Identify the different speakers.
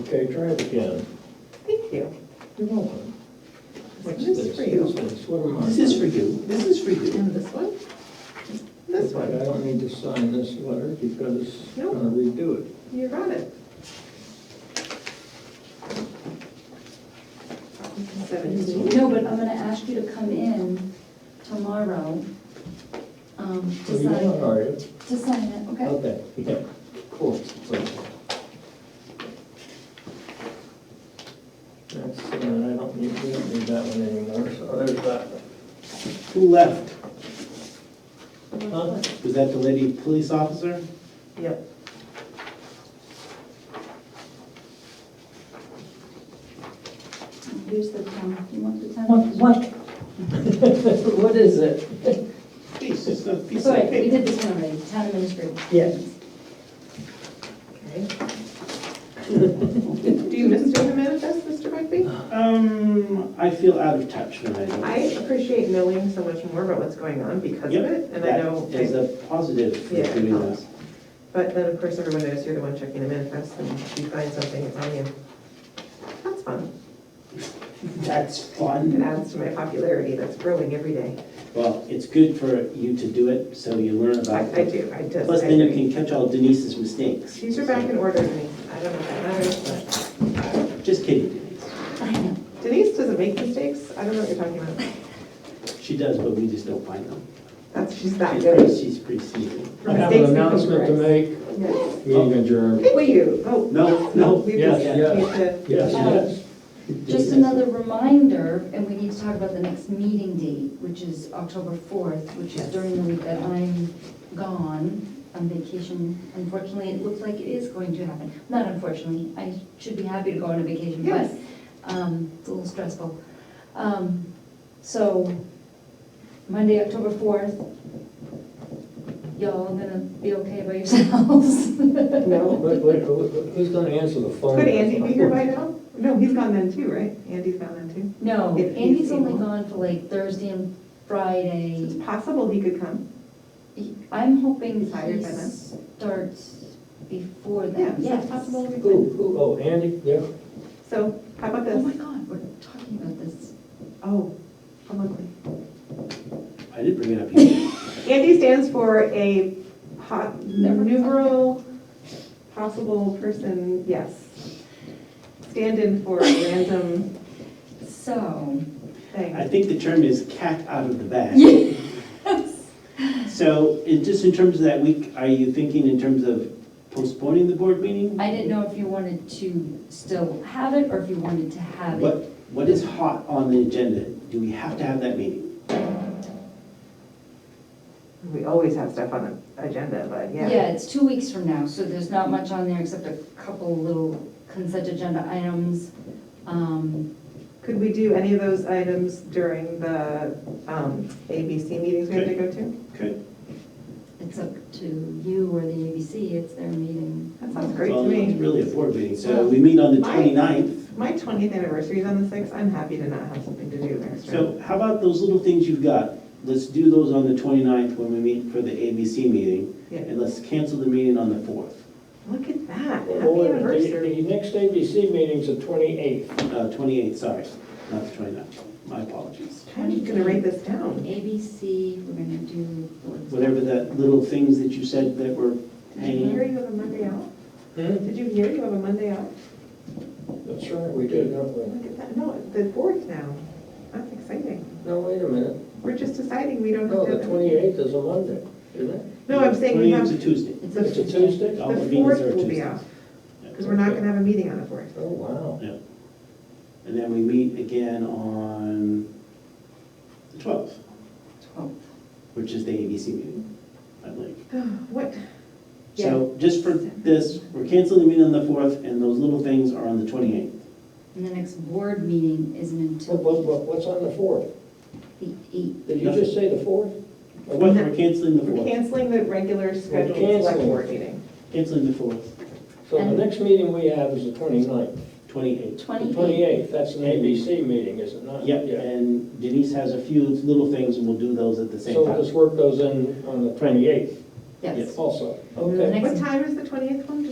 Speaker 1: Okay, try it again.
Speaker 2: Thank you.
Speaker 1: You're welcome. What's
Speaker 2: This
Speaker 1: this?
Speaker 2: is for you.
Speaker 1: What's this? What am I?
Speaker 2: This is for you, this is for you. And this one? This
Speaker 1: Okay,
Speaker 2: one.
Speaker 1: I don't need to sign this letter because I'm
Speaker 2: No.
Speaker 1: gonna redo it.
Speaker 2: You got it. Seventeen.
Speaker 3: No, but I'm gonna ask you to come in tomorrow, um,
Speaker 1: Oh,
Speaker 3: to
Speaker 1: you
Speaker 3: sign,
Speaker 1: are, are you?
Speaker 3: to sign it, okay?
Speaker 1: Okay, yeah, cool. That's, uh, I don't need, we don't need that one anymore, so there's that one.
Speaker 4: Who left?
Speaker 1: Huh?
Speaker 4: Was that the lady police officer?
Speaker 2: Yep.
Speaker 3: Here's the town, you want the town?
Speaker 1: What is it?
Speaker 4: Piece, it's a piece of
Speaker 3: Sorry, we
Speaker 4: paper.
Speaker 3: did this one already, town administrator.
Speaker 1: Yes.
Speaker 2: Do you miss doing the manifest, Mr. Bugby?
Speaker 4: Um, I feel out of touch when I don't.
Speaker 2: I appreciate knowing so much more about what's going on because of
Speaker 4: Yep,
Speaker 2: it, and I
Speaker 4: that
Speaker 2: know,
Speaker 4: is a positive for
Speaker 2: Yeah, it
Speaker 4: doing
Speaker 2: helps.
Speaker 4: that.
Speaker 2: but then, of course, everyone knows you're the one checking the manifest, and if you find something, it's on you. That's fun,
Speaker 4: That's
Speaker 2: it
Speaker 4: fun.
Speaker 2: adds to my popularity that's growing every day.
Speaker 4: Well, it's good for you to do it, so you learn
Speaker 2: I,
Speaker 4: about
Speaker 2: I
Speaker 4: it.
Speaker 2: do, I just.
Speaker 4: Plus,
Speaker 2: I
Speaker 4: then you
Speaker 2: agree.
Speaker 4: can catch all Denise's mistakes.
Speaker 2: She's are back in order, Denise, I don't know if that matters, but
Speaker 4: Just kidding, Denise.
Speaker 3: I know,
Speaker 2: Denise doesn't make mistakes, I don't know what you're talking about.
Speaker 4: She does, but we just don't find them.
Speaker 2: That's, she's that
Speaker 4: She's pretty-
Speaker 2: good.
Speaker 4: She's pretty sneaky.
Speaker 1: I have an announcement to make.
Speaker 2: Yes.
Speaker 1: Meeting adjourned.
Speaker 2: Will you? Oh.
Speaker 4: No, no,
Speaker 2: We
Speaker 1: yes,
Speaker 2: just
Speaker 1: yes.
Speaker 2: need to-
Speaker 1: Yes,
Speaker 3: Um,
Speaker 1: yes.
Speaker 3: just another reminder, and we need to talk about the next meeting date, which is October fourth, which is
Speaker 2: Yes.
Speaker 3: during the week that I'm gone on vacation. Unfortunately, it looks like it is going to happen, not unfortunately, I should be happy to go on a vacation, but
Speaker 2: Yes.
Speaker 3: Um, It's a little stressful. Um, So Monday, October 4th, y'all gonna be okay by yourselves?
Speaker 1: Well, wait, wait, who- who's gonna answer the phone?
Speaker 2: Could Andy be here by now? No, he's gone then too, right? Andy's gone then too.
Speaker 3: No,
Speaker 2: If he's
Speaker 3: Andy's only
Speaker 2: able.
Speaker 3: gone for like Thursday and
Speaker 2: It's
Speaker 3: Friday.
Speaker 2: possible he could come.
Speaker 3: He- I'm hoping
Speaker 2: He's hired
Speaker 3: he
Speaker 2: by then.
Speaker 3: starts before
Speaker 2: Yeah,
Speaker 3: that.
Speaker 2: so it's
Speaker 3: Yes.
Speaker 2: possible we
Speaker 1: Who,
Speaker 2: could.
Speaker 1: who, oh, Andy, yeah.
Speaker 2: So how about
Speaker 3: Oh my
Speaker 2: this?
Speaker 3: God, we're talking about this.
Speaker 2: Oh, publicly.
Speaker 4: I did bring it up here.
Speaker 2: Andy stands for a po-
Speaker 3: Never-
Speaker 2: numeral possible person, yes. Stand in for a random
Speaker 3: So,
Speaker 4: I
Speaker 2: thing.
Speaker 4: think the term is cat out of the bag.
Speaker 3: yes.
Speaker 4: So, in just in terms of that week, are you thinking in terms of postponing the board meeting?
Speaker 3: I didn't know if you wanted to still have it or if you wanted to have it.
Speaker 4: What, what is hot on the agenda? Do we have to have that meeting?
Speaker 2: We always have stuff on the agenda, but
Speaker 3: Yeah, it's two weeks from now, so there's not much on there except a couple little consent agenda items. Um,
Speaker 2: Could we do any of those items during the um, ABC meetings we have to go to?
Speaker 4: Good.
Speaker 3: It's up to you or the ABC, it's their meeting.
Speaker 2: That sounds great to
Speaker 4: Well, it's
Speaker 2: me.
Speaker 4: really a board meeting, so we meet on the
Speaker 2: My-
Speaker 4: 29th.
Speaker 2: My 20th anniversary is on the 6th, I'm happy to not have something to do there.
Speaker 4: So how about those little things you've got? Let's do those on the 29th when we meet for the ABC meeting,
Speaker 2: Yeah.
Speaker 4: and let's cancel the meeting on the 4th,
Speaker 2: Look at that,
Speaker 1: Oh,
Speaker 2: happy
Speaker 1: wait,
Speaker 2: anniversary.
Speaker 1: The the next ABC meeting's the twenty-eighth.
Speaker 4: uh, 28th, sorry, not the 29th. My apologies.
Speaker 2: I'm just gonna write this down.
Speaker 3: ABC, we're gonna do.
Speaker 4: Whatever that little things that you said that were
Speaker 2: Did you
Speaker 4: hanging.
Speaker 2: hear you have a Monday out?
Speaker 1: Hmm?
Speaker 2: Did you hear you have a Monday out?
Speaker 1: That's right, we did, don't we?
Speaker 2: Look at that, no, the fourth now, that's exciting.
Speaker 1: No, wait a minute.
Speaker 2: We're just deciding we don't
Speaker 1: No,
Speaker 2: have to.
Speaker 1: Oh, the twenty-eighth is a Monday, isn't it? Oh,
Speaker 2: No, I'm saying we have,
Speaker 4: 28th is a
Speaker 2: the
Speaker 4: Tuesday.
Speaker 1: It's a Tuesday?
Speaker 4: All the meetings
Speaker 2: fourth
Speaker 4: are
Speaker 2: will be
Speaker 4: Tuesdays.
Speaker 2: off, because
Speaker 4: Yeah.
Speaker 2: we're not gonna have a meeting on the fourth.
Speaker 1: Oh, wow.
Speaker 4: Yeah. And then we meet again on the 12th,
Speaker 3: Twelfth.
Speaker 4: which is the ABC meeting, I believe.
Speaker 2: What,
Speaker 4: So just for this, we're canceling the meeting on the 4th, and those little things are on the 28th.
Speaker 3: And the next board meeting isn't
Speaker 1: What,
Speaker 3: until
Speaker 1: what, what- what's on the fourth?
Speaker 3: the eighth.
Speaker 1: Did you just say the fourth?
Speaker 4: Or what, we're canceling the
Speaker 2: We're
Speaker 4: 4th,
Speaker 2: canceling the regular scheduled select
Speaker 1: canceling.
Speaker 2: board meeting.
Speaker 4: canceling the 4th,
Speaker 1: So the next meeting we have is the 29th.
Speaker 4: 28th.
Speaker 1: The
Speaker 3: Twenty-eighth.
Speaker 1: twenty-eighth, that's an ABC meeting, is it not?
Speaker 4: Yep, and Denise has a few little things, and we'll do those at the same
Speaker 1: So
Speaker 4: time.
Speaker 1: this work goes in on the twenty-eighth
Speaker 3: Yes.
Speaker 1: also,
Speaker 3: And
Speaker 1: okay.
Speaker 3: the next
Speaker 2: What time is the 28th one? Just